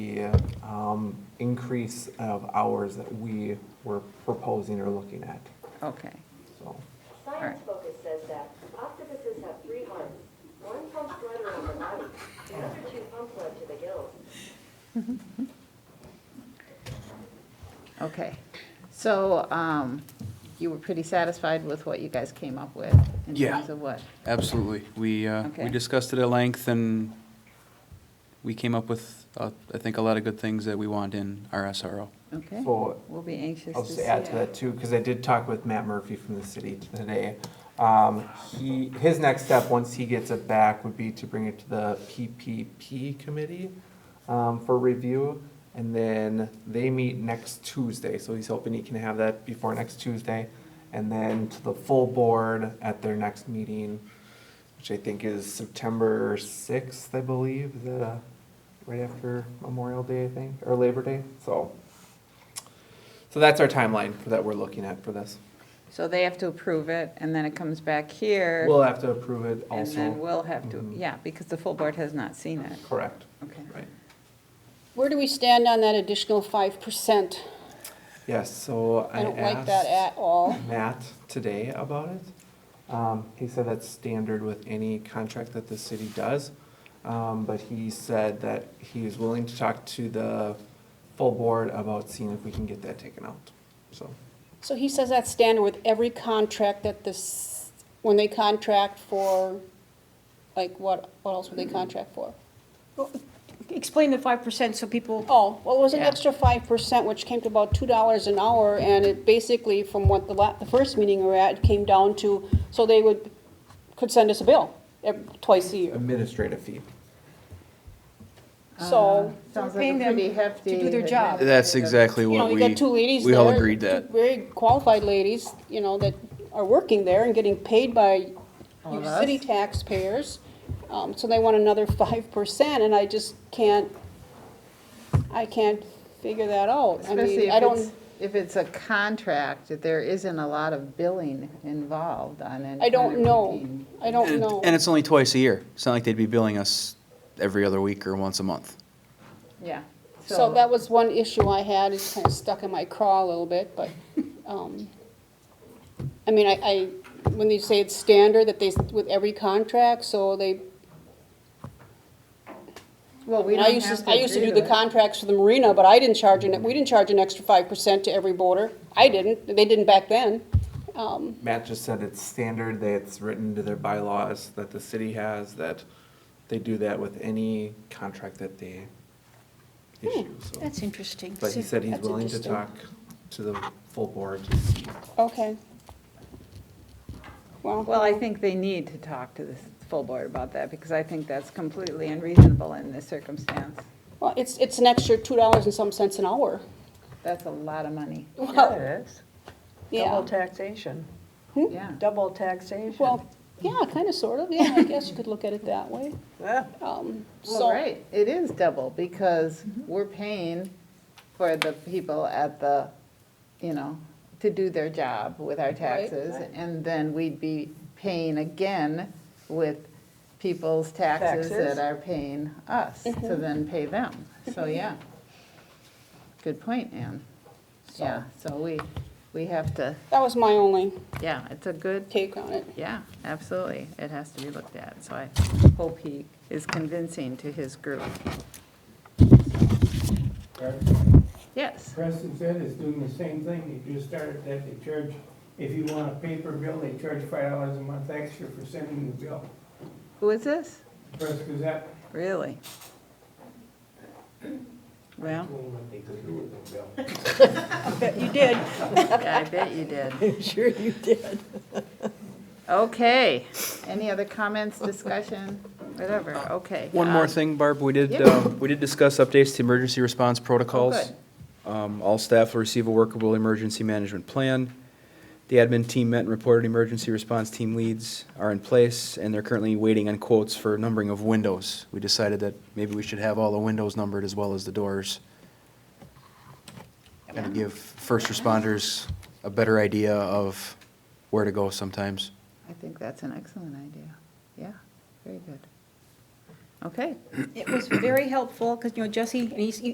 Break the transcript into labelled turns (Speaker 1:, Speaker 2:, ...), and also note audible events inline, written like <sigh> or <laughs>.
Speaker 1: the um, increase of hours that we were proposing or looking at,
Speaker 2: Okay,
Speaker 1: so.
Speaker 2: Alright.
Speaker 3: Science Focus says that octopuses have three arms. One pumps blood around the body, the other two pump blood to the gills.
Speaker 2: okay. So um, you were pretty satisfied with what you guys came up with?
Speaker 4: Yeah.
Speaker 2: In terms of what?
Speaker 4: Absolutely. We, uh,
Speaker 2: Okay.
Speaker 4: we discussed it at length, and we came up with, uh, I think, a lot of good things that we want in our SRO.
Speaker 2: Okay,
Speaker 1: So
Speaker 2: we'll be anxious
Speaker 1: I'll
Speaker 2: to
Speaker 1: just
Speaker 2: see.
Speaker 1: add to that too, because I did talk with Matt Murphy from the city today. Um, He, his next step, once he gets it back, would be to bring it to the PPP committee um, for review. And then they meet next Tuesday, so he's hoping he can have that before next Tuesday. And then to the full board at their next meeting, which I think is September 6th, I believe, is that, uh, right after Memorial Day, I think, or Labor Day, so. So that's our timeline for that we're looking at for this.
Speaker 2: So they have to approve it, and then it comes back here.
Speaker 1: We'll have to approve it
Speaker 2: And then
Speaker 1: also.
Speaker 2: we'll have to,
Speaker 1: Mhm.
Speaker 2: yeah, because the full board has not seen it.
Speaker 1: Correct.
Speaker 2: Okay.
Speaker 1: Right.
Speaker 5: Where do we stand on that additional five percent?
Speaker 1: Yes, so I
Speaker 5: I don't like that
Speaker 1: asked
Speaker 5: at all.
Speaker 1: Matt today about it. Um, he said that's standard with any contract that the city does. Um, but he said that he is willing to talk to the full board about seeing if we can get that taken out, so.
Speaker 5: So he says that's standard with every contract that this, when they contract for, like, what, what else would they contract for?
Speaker 6: Explain the five percent so people,
Speaker 5: Oh, well, it was an
Speaker 2: Yeah.
Speaker 5: extra five percent, which came to about two dollars an hour, and it basically, from what the la, the first meeting we were at, it came down to, so they would, could send us a bill ev- twice a year.
Speaker 1: Administrative fee.
Speaker 5: So,
Speaker 2: Uh, Sounds
Speaker 6: We're
Speaker 2: like a
Speaker 6: paying them
Speaker 2: pretty hefty.
Speaker 6: do their job.
Speaker 4: That's exactly
Speaker 5: you know,
Speaker 4: what
Speaker 5: you
Speaker 4: we,
Speaker 5: got two ladies
Speaker 4: we all
Speaker 5: there,
Speaker 4: agreed
Speaker 5: two
Speaker 4: that.
Speaker 5: Very qualified ladies, you know, that are working there and getting paid by
Speaker 2: All of
Speaker 5: your
Speaker 2: us.
Speaker 5: city taxpayers. Um, so they want another <laughs> five percent and I just can't, I can't figure that out. I
Speaker 2: Especially
Speaker 5: mean,
Speaker 2: if
Speaker 5: I
Speaker 2: it's,
Speaker 5: don't,
Speaker 2: if it's a contract, that there isn't a lot of billing involved on any
Speaker 5: I
Speaker 2: kind
Speaker 5: don't
Speaker 2: of
Speaker 5: know.
Speaker 2: routine.
Speaker 5: I don't
Speaker 4: And-
Speaker 5: know.
Speaker 4: And it's only twice a year. It's not like they'd be billing us every other week or once a month.
Speaker 2: Yeah.
Speaker 5: So that was one issue I had, it's kind of stuck in my craw a little
Speaker 4: <laughs>
Speaker 5: bit, but, um, I mean, I, I, when they say it's standard, that they, s- with every contract, so they
Speaker 2: Well, we
Speaker 5: And I
Speaker 2: don't
Speaker 5: used
Speaker 2: have
Speaker 5: to,
Speaker 2: to
Speaker 5: I used to
Speaker 2: agree
Speaker 5: do the
Speaker 2: it.
Speaker 5: contracts for the marina, but I didn't charge an, we didn't charge an extra five percent to every boarder. I didn't, they didn't back then. Um,
Speaker 1: Matt just said it's standard, that it's written to their bylaws, that the city has, that they do that with any contract that they issue, so.
Speaker 6: that's interesting.
Speaker 1: But he said he's
Speaker 5: That's
Speaker 1: willing to
Speaker 5: interesting.
Speaker 1: talk to the full board to see.
Speaker 5: okay. Well,
Speaker 2: Well, I think they need to talk to the full board about that, because I think that's completely unreasonable in this circumstance.
Speaker 5: well, it's, it's an extra two dollars and some cents an hour.
Speaker 2: That's a lot of money.
Speaker 5: Well,
Speaker 7: It is. Double
Speaker 5: yeah,
Speaker 7: taxation,
Speaker 2: Yeah.
Speaker 7: double taxation.
Speaker 5: well, yeah, kind of, sort of, yeah, I guess you could look at it that way.
Speaker 7: Yeah.
Speaker 5: Um,
Speaker 2: Well,
Speaker 5: so,
Speaker 2: right, it is double, because we're paying for the people at the, you know, to do their job with our taxes, and then we'd be paying again with people's taxes
Speaker 7: Taxes.
Speaker 2: that are paying us, to then pay them. So, yeah. Good point, Ann. Yeah, so we, we have to,
Speaker 5: that was my only
Speaker 2: yeah, it's a good
Speaker 5: take on it.
Speaker 2: yeah, absolutely. It has to be looked at. So I hope he is convincing to his group. Yes,
Speaker 8: Preston said is doing the same thing, they just started that, they charge, if you want a paper bill, they charge five dollars a month extra for sending the bill.
Speaker 2: who is this?
Speaker 8: Press Gazette
Speaker 2: Really? Well,
Speaker 8: told what they could do with the bill.
Speaker 7: Bet <laughs> you did.
Speaker 2: yeah, I bet you
Speaker 7: <laughs>
Speaker 2: did.
Speaker 7: Sure you did.
Speaker 2: Okay, any other comments, discussion, whatever, okay.
Speaker 4: One more
Speaker 2: um,
Speaker 4: thing, Barb, we did,
Speaker 2: yeah. Oh,
Speaker 4: um, we did discuss updates to emergency response protocols. Um, All staff will receive a workable emergency management plan. The admin team met and reported emergency response team leads are in place, and they're currently waiting on quotes for numbering of windows. We decided that maybe we should have all the windows numbered as well as the doors. Kind of give first responders a better idea of where to go sometimes.
Speaker 2: I think that's an excellent idea. Yeah, very good. Okay.
Speaker 6: It was very helpful, because, you know, Jesse, and he's,